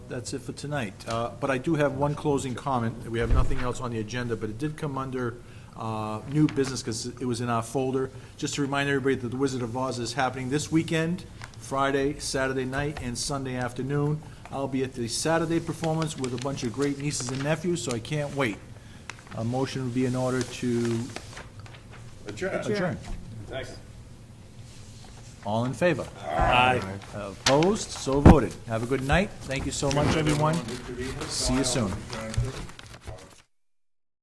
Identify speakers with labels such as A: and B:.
A: that's it for tonight. Uh, But I do have one closing comment. We have nothing else on the agenda, but it did come under uh, new business because it was in our folder. Just to remind everybody that The Wizard of Oz is happening this weekend, Friday, Saturday night, and Sunday afternoon. I'll be at the Saturday performance with a bunch of great nieces and nephews, so I can't wait. A motion would be in order to
B: Adjourn.
A: adjourn.
B: Second.
A: All in favor? Opposed? So voted. Have a good night. Thank you so much, everyone. See you soon.